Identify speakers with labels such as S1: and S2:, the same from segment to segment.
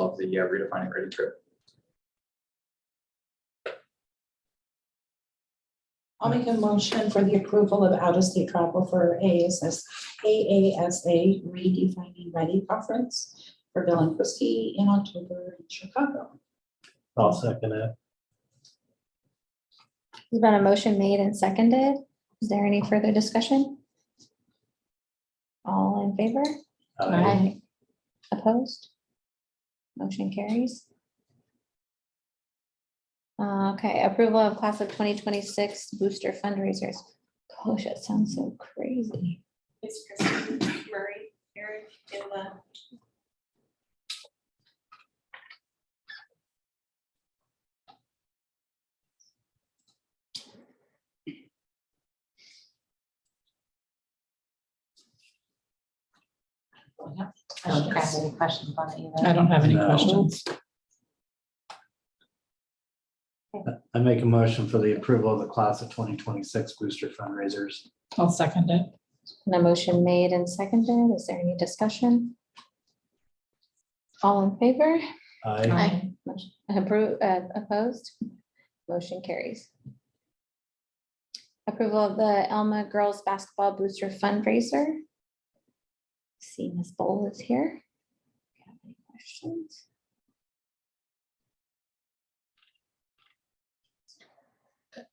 S1: of the uh, redefining ready trip.
S2: I'll make a motion for the approval of out-of-state travel for AASS, AASA redefining ready conference for Bill and Christie in October in Chicago.
S3: I'll second it.
S4: There's been a motion made and seconded. Is there any further discussion? All in favor?
S3: Aye.
S4: Opposed? Motion carries. Uh, Okay, approval of class of 2026 booster fundraisers. Gosh, that sounds so crazy.
S5: It's Kristen Murray, Eric, Emma.
S6: I don't have any questions on it either.
S7: I don't have any
S3: No.
S7: questions.
S3: I make a motion for the approval of the class of twenty twenty-six booster fundraisers.
S7: I'll second it.
S4: And a motion made and seconded. Is there any discussion? All in favor?
S3: I,
S7: Aye.
S4: Motion- appro- uh, opposed? Motion carries. Approval of the Elma Girls Basketball Booster Fundraiser. See Ms. Bowl is here. If you have any Questions?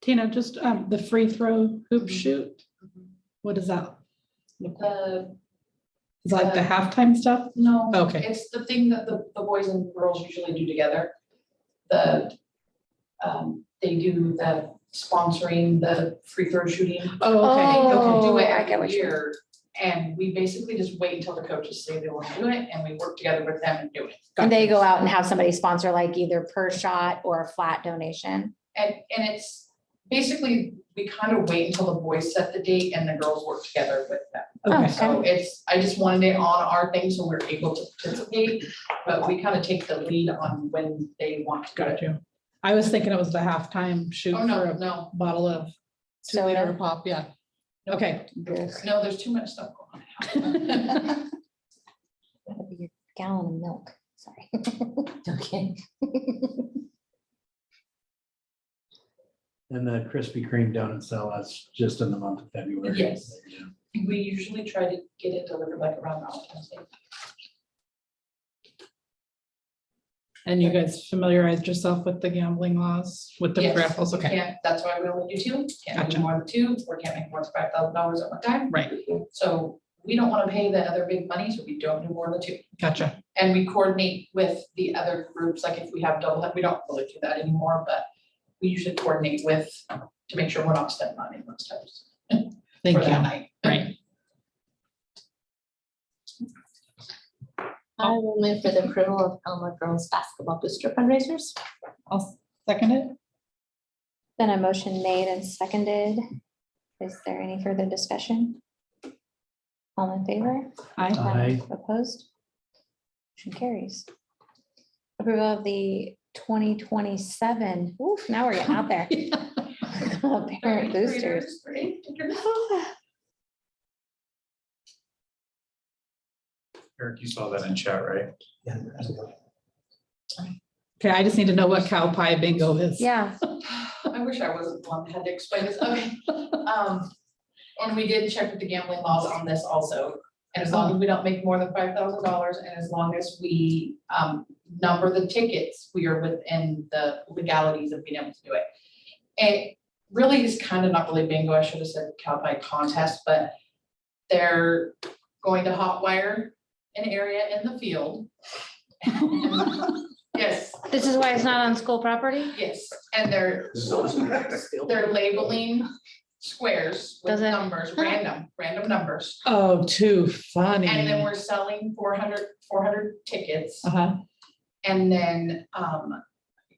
S7: Tina, just um, the free throw
S5: Mm-hmm.
S7: hoop shoot. What is that? Look like?
S5: The,
S7: Is
S5: Uh,
S7: that like the halftime stuff?
S5: no.
S7: Okay.
S5: It's the thing that the, the boys and girls usually do together. The, um, they do the sponsoring, the free throw shooting.
S7: Oh,
S5: They
S7: okay,
S5: go
S7: okay.
S5: do it
S4: Oh, I get
S5: every
S4: what you mean.
S5: year. And we basically just wait until the coaches say they want to do it and we work together with them and do it.
S4: And they go out and have somebody sponsor like either per shot or a flat donation.
S5: And, and it's basically, we kind of wait until the boys set the date and the girls work together with them.
S7: Okay.
S5: So it's, I just wanted it on our thing so we're able to participate, but we kind of take the lead on when they want to go.
S7: Got you. I was thinking it was the halftime shoot
S5: Oh,
S7: for
S5: no,
S7: a
S5: no,
S7: bottle of two
S4: So
S7: liter pop, yeah. Okay.
S4: there's
S5: no, there's too much stuff going on.
S4: gotta be a gallon of milk, sorry.
S6: Okay.
S3: and the Krispy Kreme donut sale, that's just in the month of February.
S5: Yes.
S3: Yeah.
S5: We usually try to get it delivered like around Valentine's Day.
S7: And you guys familiarized yourself with the gambling laws, with the
S5: Yes.
S7: raffles? Okay,
S5: Can't, that's why we only do two, can't
S7: Gotcha.
S5: do more than two, or can't make more than five thousand dollars at one time.
S7: right,
S5: So we don't want to pay the other big money, so we don't do more than two.
S7: gotcha.
S5: And we coordinate with the other groups, like if we have double, we don't really do that anymore, but we usually coordinate with, to make sure we're not spending money most times.
S7: Thank
S5: for that
S7: you.
S5: night.
S7: Right.
S6: I will move for the approval of Elma Girls Basketball Booster fundraisers.
S7: I'll second it.
S4: Then a motion made and seconded. Is there any further discussion? All in favor?
S7: Aye.
S3: Aye.
S4: Opposed? Motion carries. Approval of the twenty twenty-seven, oof, now we're getting out there. Parent boosters.
S5: Right?
S1: Eric, you saw that in chat, right?
S7: Okay, I just need to know what cow pie bingo is.
S4: Yeah,
S5: I wish I wasn't the one that had to explain this, okay. Um, and we did check with the gambling laws on this also. And as long as we don't make more than five thousand dollars and as long as we, um, number the tickets, we are within the legalities of being able to do it. It really is kind of not really bingo, I should have said cow pie contest, but they're going to hot wire an area in the field. Yes,
S4: this is why it's not on school property?
S5: yes, and they're they're labeling squares with
S4: Does it-
S5: numbers, random, random numbers.
S7: Oh, too funny.
S5: And then we're selling 400 400 tickets.
S7: Uh-huh,
S5: And then, um,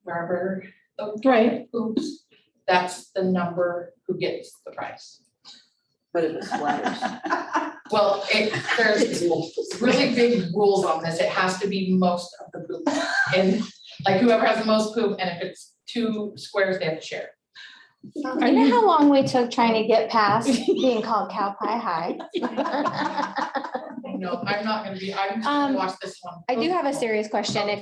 S5: wherever the
S7: right.
S5: hoops, that's the number who gets the prize.
S8: But it was letters.
S5: Well, it, there's really big rules on this. It has to be most of the poop. And like whoever has the most poop, and if it's two squares, they have to share.
S7: Are
S4: You know how long we took trying to get past being called cow pie high?
S5: No, I'm not gonna be, I'm
S4: Um,
S5: gonna watch this one.
S4: I do Um, have a serious question. If